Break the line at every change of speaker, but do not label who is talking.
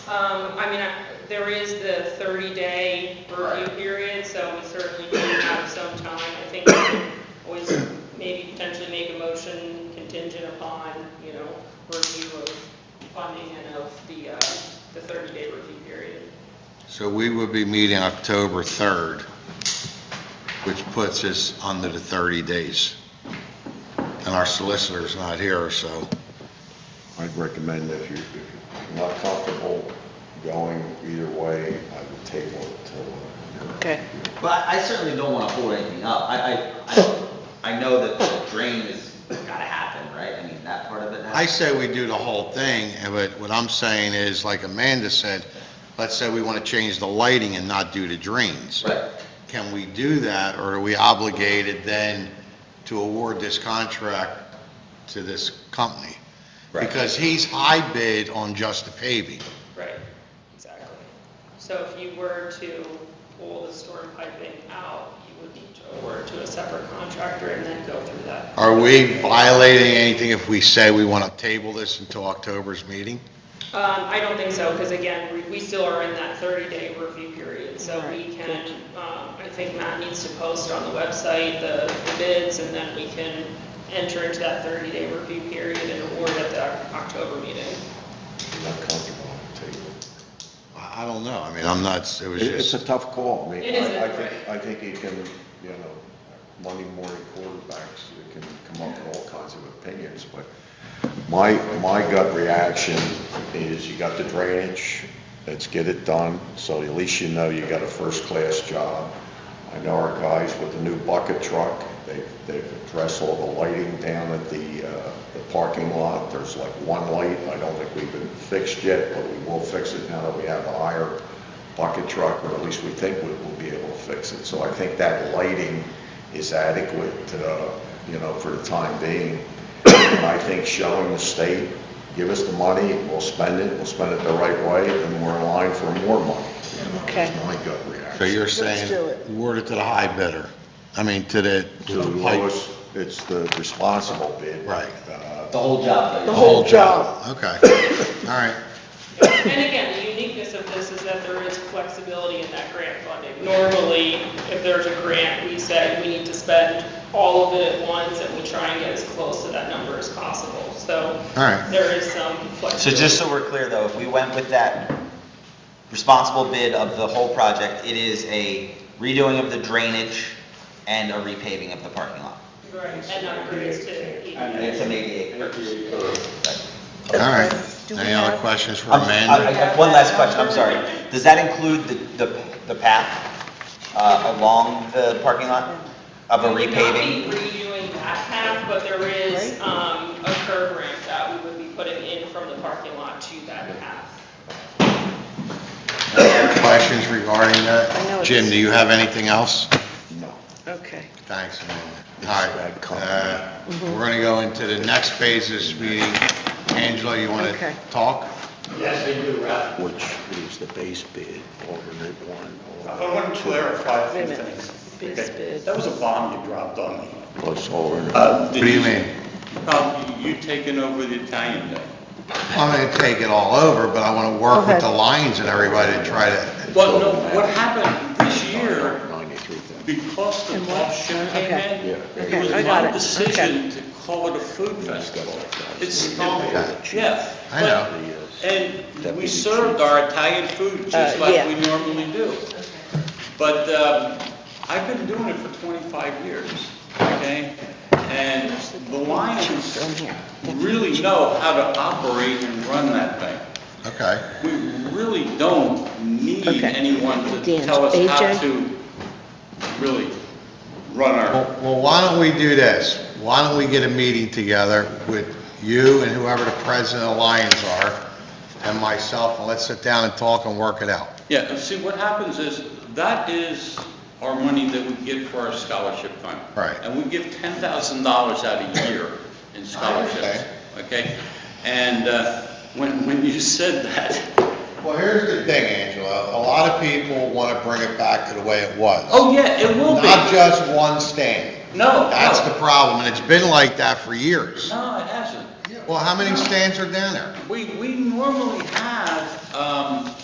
Um, I mean, I- there is the thirty-day review
Right.
period, so we certainly do have some time. I think we can always maybe potentially make a motion contingent upon, you know, review of funding and of the, uh, the thirty-day review period.
So we would be meeting October 3rd, which puts us under the 30 days. And our solicitor's not here, so
I'd recommend if you, if you're not comfortable going either way, I would table it till. uh,
Okay.
Well, I I certainly don't wanna hold anything up. I, I, I, I know that the drain is, gotta happen, right? I mean, that part of it. has-
I say we do the whole thing, and but what I'm saying is, like Amanda said, let's say we want to change the lighting and not do the drains.
Right,
Can we do that, or are we obligated then to award this contract to this company?
Right.
Because he's high bid on just the paving.
Right, exactly. So if you were to pull the storm piping out, you would need to award to a separate contractor and then go through that.
Are we violating anything if we say we want to table this until October's meeting?
Um, I don't think so, because again, we, we still are in that thirty-day review period, so we can, um, I think Matt needs to post on the website the the bids, and then we can enter into that thirty-day review period and award at the October meeting.
If you're not comfortable, I would table it.
I I don't know, I mean, I'm not, it was
It- It's a
just,
tough call. I mean,
It is,
I- I
right.
think, I think you can, you know, Monday morning quarterbacks, you can come up with all kinds of opinions, but my, my gut reaction is you got the drainage, let's get it done, so at least you know you got a first-class job. I know our guys with the new bucket truck, they, they've addressed all the lighting down at the, uh, the parking lot. There's like one light, I don't think we've been fixed yet, but we will fix it now that we have a higher bucket truck, or at least we think we will be able to fix it. So I think that lighting is adequate, uh, you know, for the time being. And I think showing the state, give us the money, we'll spend it, we'll spend it the right way, and we're in line for more money. you know, is
Okay.
My gut reaction.
so you're
Let's do
saying,
it.
award it to the high bidder, I mean, to the,
To the lowest, it's the responsible bid.
Right.
Uh,
the whole job.
The whole job.
Okay, all right,
And again, the uniqueness of this is that there is flexibility in that grant funding. Normally, if there's a grant, we say we need to spend all of it at once, and we try and get as close to that number as possible, so
all right.
there is some
So
flexibility.
just so we're clear though, if we went with that responsible bid of the whole project, it is a redoing of the drainage and a repaving of the parking lot.
Right, and upgrades to.
And it's an ADA purchase.
All right,
Do we
any other
have-
questions for
I'm- I- I
Amanda?
have One last question, I'm sorry. Does that include the, the, the path, uh, along the parking lot of a
We would
repaving?
not be redoing that path, but there is, um, a curb ramp that we would be putting in from the parking lot to that path.
Any Questions regarding
I know
that?
it's-
Jim, do you have anything else?
No.
Okay.
Thanks, Amanda.
bad
All
company.
right, uh,
Mm-hmm.
we're going to go into the next phase of this meeting. Angela, you want to
Okay.
talk?
Yes, they do, Ralph.
Which is the base bid, alternate one.
I want to clarify a
Wait a
few
minute.
things.
Bid,
Okay.
bid.
That was a bomb you dropped on me.
Plus alternate.
What
Uh, What do you mean?
Uh, You taking over the Italian thing.
I'm going to take it all over, but I want to work with
Okay.
the lines and everybody to try to
Well, no, what happened this year,
Ninety-three thousand.
because the
And what?
offshoot came
Okay.
in,
Yeah.
it
Okay,
was
I got
my
it.
decision to call it a food festival. It's, yeah.
I know.
but- And
Deputy
we
chief.
served our Italian food just
Uh, yeah.
like we normally do. But um, I've been doing it for 25 years, okay? And the Lions really know how to operate and run that thing.
Okay,
We really don't need
Okay.
anyone to
Dan,
tell us
AJ?
how to really run
well,
our,
well, why don't we do this? Why don't we get a meeting together with you and whoever the president of Lions are, and myself, and let's sit down and talk and work it out.
yeah, see, what happens is, that is our money that we get for our scholarship fund.
Right.
And we give $10,000 out a year in scholarships, okay? And uh, when, when you said that,
Well, here's the thing, Angela, a lot of people want to bring it back to the way it was.
oh, yeah, it will be.
Not just one stand.
No,
That's the
no,
problem, and it's been like that for years.
no, it hasn't.
Well, how many stands are down there?
We, we normally have, um,